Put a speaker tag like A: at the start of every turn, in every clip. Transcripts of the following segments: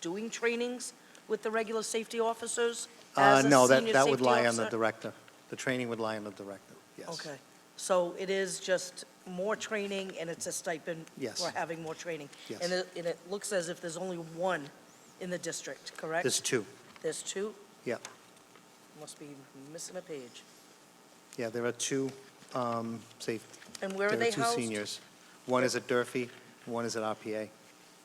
A: doing trainings with the regular safety officers
B: Uh,
A: as a
B: No, that,
A: senior
B: that would
A: safety
B: lie on the
A: officer?
B: director. The training would lie on the director, yes.
A: Okay, so it is just more training, and it's a stipend
B: Yes.
A: for having more training?
B: Yes.
A: And it, and it looks as if there's only one in the district, correct?
B: There's two.
A: There's two?
B: Yeah.
A: Must be missing a page.
B: Yeah, there are two, um, safe,
A: And where
B: there
A: are
B: are
A: they
B: two
A: housed?
B: seniors. One is at Durfee, one is at RPA.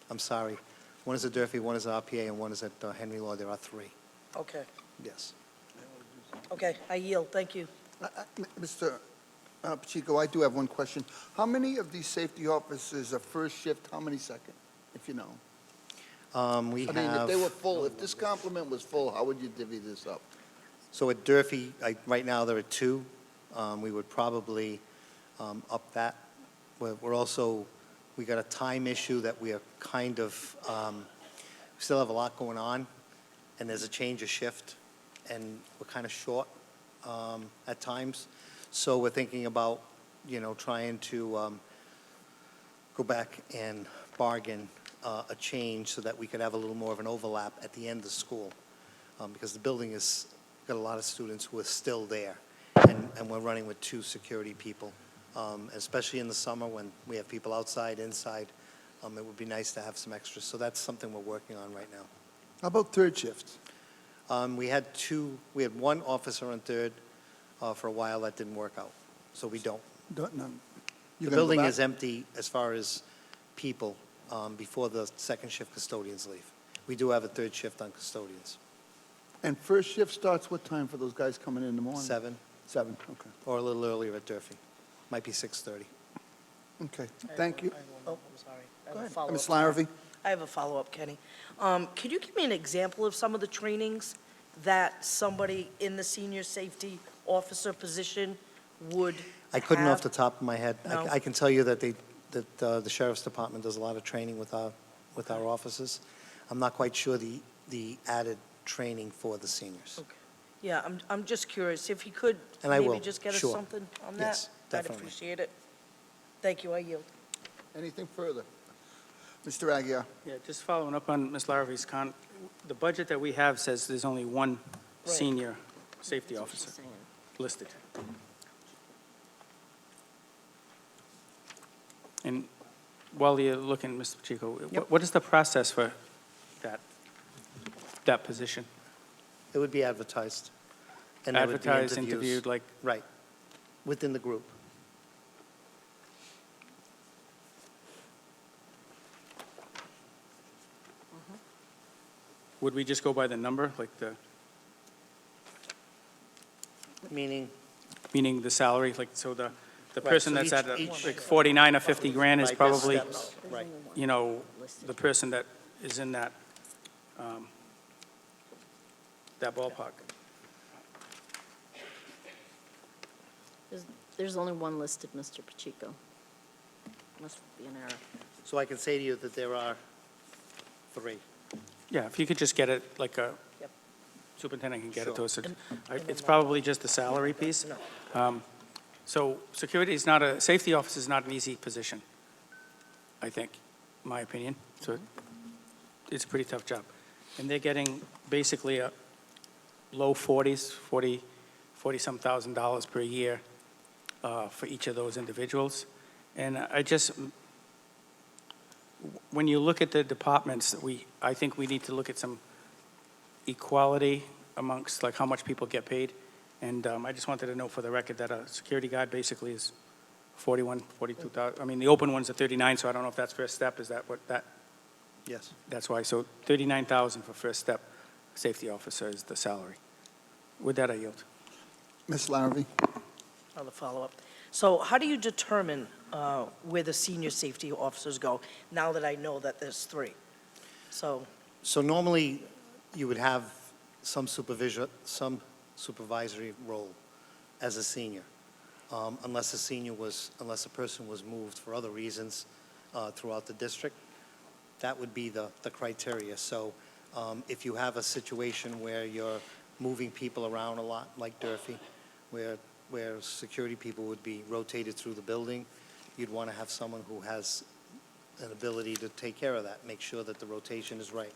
B: I'm sorry. One is at Durfee, one is at RPA, and one is at uh, Henry Law. There are three,
A: Okay,
B: yes.
A: okay, I yield, thank you.
C: I- I- M- Mr. uh, Pacheco, I do have one question. How many of these safety officers are first shift, how many second, if you know?
B: Um, We
C: I mean, if they were
B: have,
C: full, if this complement was full, how would you divvy this up?
B: so at Durfee, I- right now, there are two. Um, We would probably um, up that. We're we're also, we got a time issue that we are kind of, um, we still have a lot going on, and there's a change of shift, and we're kind of short um, at times. So we're thinking about, you know, trying to um, go back and bargain uh, a change so that we could have a little more of an overlap at the end of school, um, because the building has got a lot of students who are still there, and and we're running with two security people, um, especially in the summer when we have people outside, inside. um, It would be nice to have some extras, so that's something we're working on right now.
C: How about third shift?
B: Um, We had two, we had one officer on third uh, for a while, that didn't work out, so we don't.
C: Don't, none.
B: The building is empty as far as people um, before the second shift custodians leave. We do have a third shift on custodians,
C: And first shift starts what time for those guys coming in in the morning?
B: seven,
C: Seven, okay.
B: or a little earlier at Durfee, might be 6:30.
C: Okay, thank you.
A: Oh, I'm sorry. I
C: Go
A: have a
C: ahead.
A: follow-up.
C: Ms. Larrabee?
A: I have a follow-up, Kenny. Um, Could you give me an example of some of the trainings that somebody in the senior safety officer position would
B: I couldn't
A: have?
B: off the top of my head. I-
A: No.
B: I can tell you that they, that uh, the sheriff's department does a lot of training with our, with our officers. I'm not quite sure the, the added training for the seniors.
A: Okay. Yeah, I'm, I'm just curious, if you could
B: And I
A: maybe
B: will,
A: just get us
B: sure.
A: something on that?
B: Yes, definitely.
A: I'd appreciate it. Thank you, I yield.
C: Anything further? Mr. Aguirre?
D: Yeah, just following up on Ms. Larrabee's con, the budget that we have says there's only one
A: Right.
D: senior safety officer listed. And while you're looking, Mr.
B: Yep.
D: Pacheco, wh- what is the process for that, that position?
B: It would be advertised. and there would be
D: Advertised,
B: interviews.
D: interviewed, like,
B: Right, within the group.
D: would we just go by the number, like the,
B: Meaning,
D: meaning the salary, like, so the, the
B: Right,
D: person
B: so
D: that's
B: each-
D: at, uh,
B: each-
D: like, 49 or 50 grand is
B: Right, there's
D: probably,
B: steps, Right,
D: you know, the person that is in that, um, that ballpark.
E: There's only one listed, Mr. Pacheco. Must be an error.
B: so I can say to you that there are three.
D: Yeah, if you could just get it, like a,
A: Yep.
D: superintendent can get it to
B: Sure.
D: us.
A: And-
D: I-
A: and
D: It's
A: then- uh,
D: probably just the salary piece.
A: No.
D: Um, So security is not a, safety officer is not an easy position, I think, my opinion. So
A: Mm-hmm.
D: it's a pretty tough job. And they're getting basically a low 40s, 40, 40-some thousand dollars per year uh, for each of those individuals. And I just, when you look at the departments, we, I think we need to look at some equality amongst, like, how much people get paid. And um, I just wanted to know for the record that a security guard basically is 41, 42,000, I mean, the open ones are 39, so I don't know if that's first step, is that what, that,
B: Yes.
D: that's why, so 39,000 for first step, safety officer is the salary. With that, I yield.
C: Ms. Larrabee?
A: On the follow-up. So how do you determine uh, where the senior safety officers go, now that I know that there's three? So,
B: So normally, you would have some supervision, some supervisory role as a senior, um, unless a senior was, unless a person was moved for other reasons uh, throughout the district. That would be the, the criteria. So um, if you have a situation where you're moving people around a lot, like Durfee, where, where security people would be rotated through the building, you'd want to have someone who has an ability to take care of that, make sure that the rotation is right.